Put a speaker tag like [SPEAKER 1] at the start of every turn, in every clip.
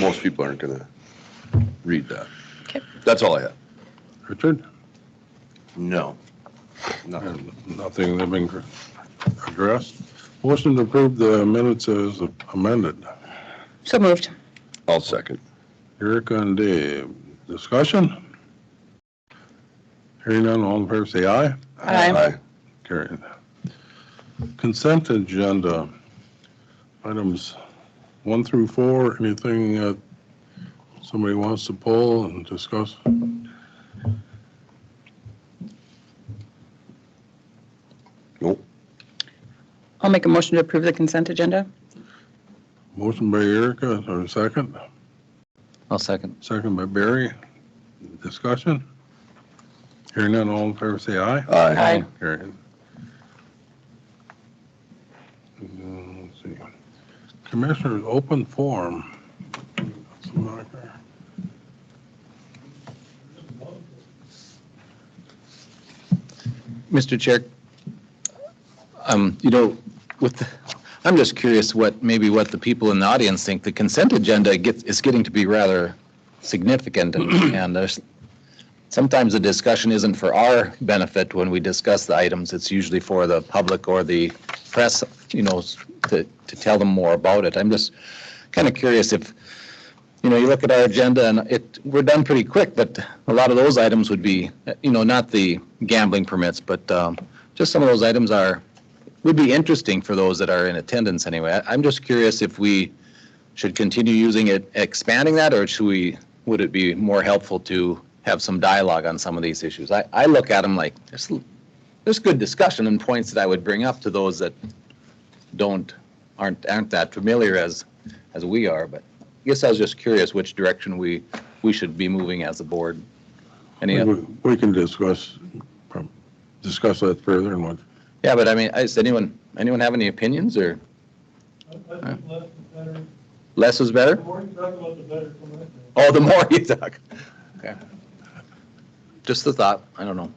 [SPEAKER 1] most people aren't gonna read that.
[SPEAKER 2] Okay.
[SPEAKER 1] That's all I have.
[SPEAKER 3] Richard?
[SPEAKER 1] No. Nothing.
[SPEAKER 3] Nothing has been addressed. Motion to approve the minutes as amended.
[SPEAKER 2] So moved.
[SPEAKER 1] I'll second.
[SPEAKER 3] Erica and Dave, discussion? Hearing none, all in favor, say aye.
[SPEAKER 2] Aye.
[SPEAKER 3] Carried. Consent agenda, items one through four, anything that somebody wants to pull and discuss?
[SPEAKER 1] Nope.
[SPEAKER 2] I'll make a motion to approve the consent agenda.
[SPEAKER 3] Motion by Erica, or a second,
[SPEAKER 4] I'll second.
[SPEAKER 3] second by Barry, discussion? Hearing none, all in favor, say aye.
[SPEAKER 1] Aye.
[SPEAKER 3] Carried. Uh, let's see. Commissioners, open forum. What's the moniker?
[SPEAKER 4] Mr. Chair, um, you know, with, the- I'm just curious what, maybe what the people in the audience think. The consent agenda gets, is getting to be rather significant, and and there's, sometimes the discussion isn't for our benefit when we discuss the items. It's usually for the public or the press, you know, s- to, to tell them more about it. I'm just kind of curious if, you know, you look at our agenda and it, we're done pretty quick, but a lot of those items would be, you know, not the gambling permits, but um, just some of those items are, would be interesting for those that are in attendance anyway. I- I'm just curious if we should continue using it, expanding that, or should we, would it be more helpful to have some dialogue on some of these issues? I, I look at them like, there's, there's good discussion and points that I would bring up to those that don't, aren't, aren't that familiar as, as we are, but I guess I was just curious which direction we, we should be moving as a board. Any,
[SPEAKER 3] We we can discuss, prob- discuss that further and what,
[SPEAKER 4] yeah, but I mean, is anyone, anyone have any opinions or
[SPEAKER 5] I think less is better.
[SPEAKER 4] less is better?
[SPEAKER 5] The more you talk about, the better commitment.
[SPEAKER 4] Oh, the more you talk. Okay. Just the thought, I don't know.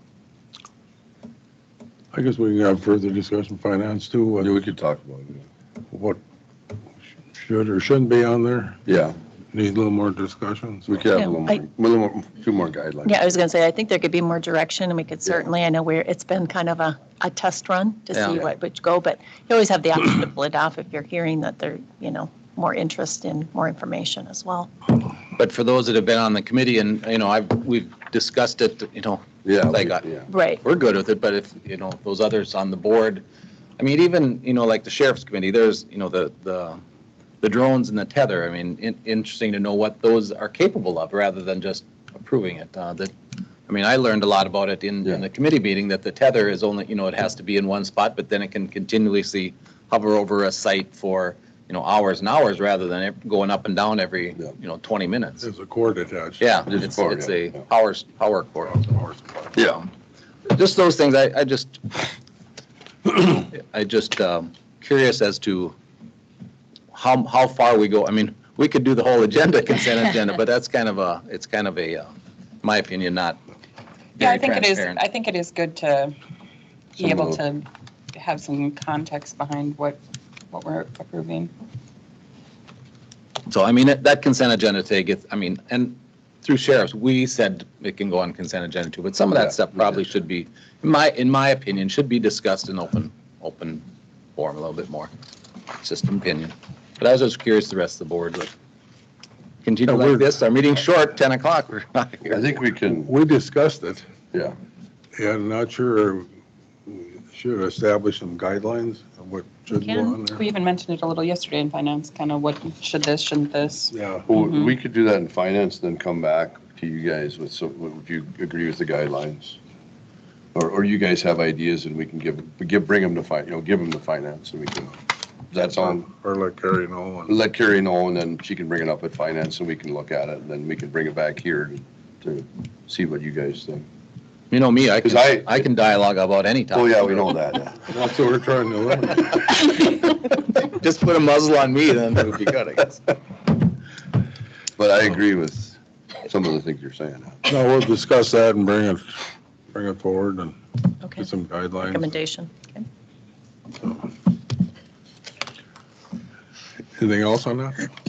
[SPEAKER 3] I guess we can have further discussion finance too,
[SPEAKER 1] Well, yeah,
[SPEAKER 3] what-
[SPEAKER 1] we could talk about it.
[SPEAKER 3] what should or shouldn't be on there.
[SPEAKER 1] Yeah,
[SPEAKER 3] Need a little more discussion. so-
[SPEAKER 1] we could have a little
[SPEAKER 6] Yeah, I-
[SPEAKER 1] more, a little more, a few more guidelines.
[SPEAKER 6] Yeah, I was going to say, I think there could be more direction, and we could certainly, I know we're, it's been kind of a, a test run to see
[SPEAKER 4] Yeah.
[SPEAKER 6] what would go, but you always have the option to pull it off if you're hearing that there, you know, more interest in more information as well.
[SPEAKER 4] But for those that have been on the committee and, you know, I've, we've discussed it, you know,
[SPEAKER 1] Yeah.
[SPEAKER 4] Like,
[SPEAKER 1] we-
[SPEAKER 4] uh,
[SPEAKER 1] yeah.
[SPEAKER 6] Right,
[SPEAKER 4] we're good with it, but if, you know, those others on the board, I mean, even, you know, like the sheriff's committee, there's, you know, the, the, the drones and the tether, I mean, in, interesting to know what those are capable of rather than just approving it. Uh, that, I mean, I learned a lot about it in, in the committee meeting that the tether is only, you know, it has to be in one spot, but then it can continuously hover over a site for, you know, hours and hours rather than it going up and down every,
[SPEAKER 1] Yeah.
[SPEAKER 4] you know, 20 minutes.
[SPEAKER 3] There's a cord attached.
[SPEAKER 4] Yeah,
[SPEAKER 1] Just
[SPEAKER 4] it's,
[SPEAKER 1] power,
[SPEAKER 4] it's
[SPEAKER 1] yeah,
[SPEAKER 4] a
[SPEAKER 1] yeah.
[SPEAKER 4] power, power cord.
[SPEAKER 1] Yeah,
[SPEAKER 4] Just those things, I, I just, I just um, curious as to how, how far we go. I mean, we could do the whole agenda, consent agenda, but that's kind of a, it's kind of a, uh, my opinion, not
[SPEAKER 7] Yeah, I
[SPEAKER 4] very
[SPEAKER 7] think it is,
[SPEAKER 4] transparent.
[SPEAKER 7] I think it is good to be
[SPEAKER 1] Some
[SPEAKER 7] able
[SPEAKER 1] of
[SPEAKER 7] to have some context behind what, what we're approving.
[SPEAKER 4] So I mean, that consent agenda take, it, I mean, and through sheriffs, we said it can go on consent agenda too, but some of
[SPEAKER 1] Yeah,
[SPEAKER 4] that stuff
[SPEAKER 1] we did.
[SPEAKER 4] probably should be, in my, in my opinion, should be discussed in open, open forum a little bit more. It's just an opinion. But I was just curious, the rest of the board, would continue
[SPEAKER 3] Yeah, we're-
[SPEAKER 4] like this, our meeting's short, 10 o'clock, we're not here.
[SPEAKER 1] I think we can,
[SPEAKER 3] We discussed it.
[SPEAKER 1] yeah,
[SPEAKER 3] Yeah, I'm not sure, we should establish some guidelines of what should go on
[SPEAKER 7] We
[SPEAKER 3] there.
[SPEAKER 7] even mentioned it a little yesterday in finance, kind of what, should this, shouldn't this?
[SPEAKER 3] Yeah,
[SPEAKER 1] Well,
[SPEAKER 7] Mhm.
[SPEAKER 1] we could do that in finance, then come back to you guys with some, would you agree with the guidelines? Or, or you guys have ideas and we can give, we give, bring them to fi, you know, give them to finance and we can, that's on,
[SPEAKER 3] or like Carrie Nolan.
[SPEAKER 1] let Carrie know and then she can bring it up at finance and we can look at it and then we can bring it back here to see what you guys think.
[SPEAKER 4] You know me, I
[SPEAKER 1] 'Cause
[SPEAKER 4] can,
[SPEAKER 1] I-
[SPEAKER 4] I can dialogue about any topic.
[SPEAKER 1] Oh, yeah, we know that. yeah.
[SPEAKER 3] That's what we're trying to limit.
[SPEAKER 4] Just put a muzzle on me, then it would be good, I guess.
[SPEAKER 1] But I agree with some of the things you're saying.
[SPEAKER 3] No, we'll discuss that and bring it, bring it forward and
[SPEAKER 6] okay,
[SPEAKER 3] get some guidelines.
[SPEAKER 6] recommendation. Okay.
[SPEAKER 3] Anything else on that?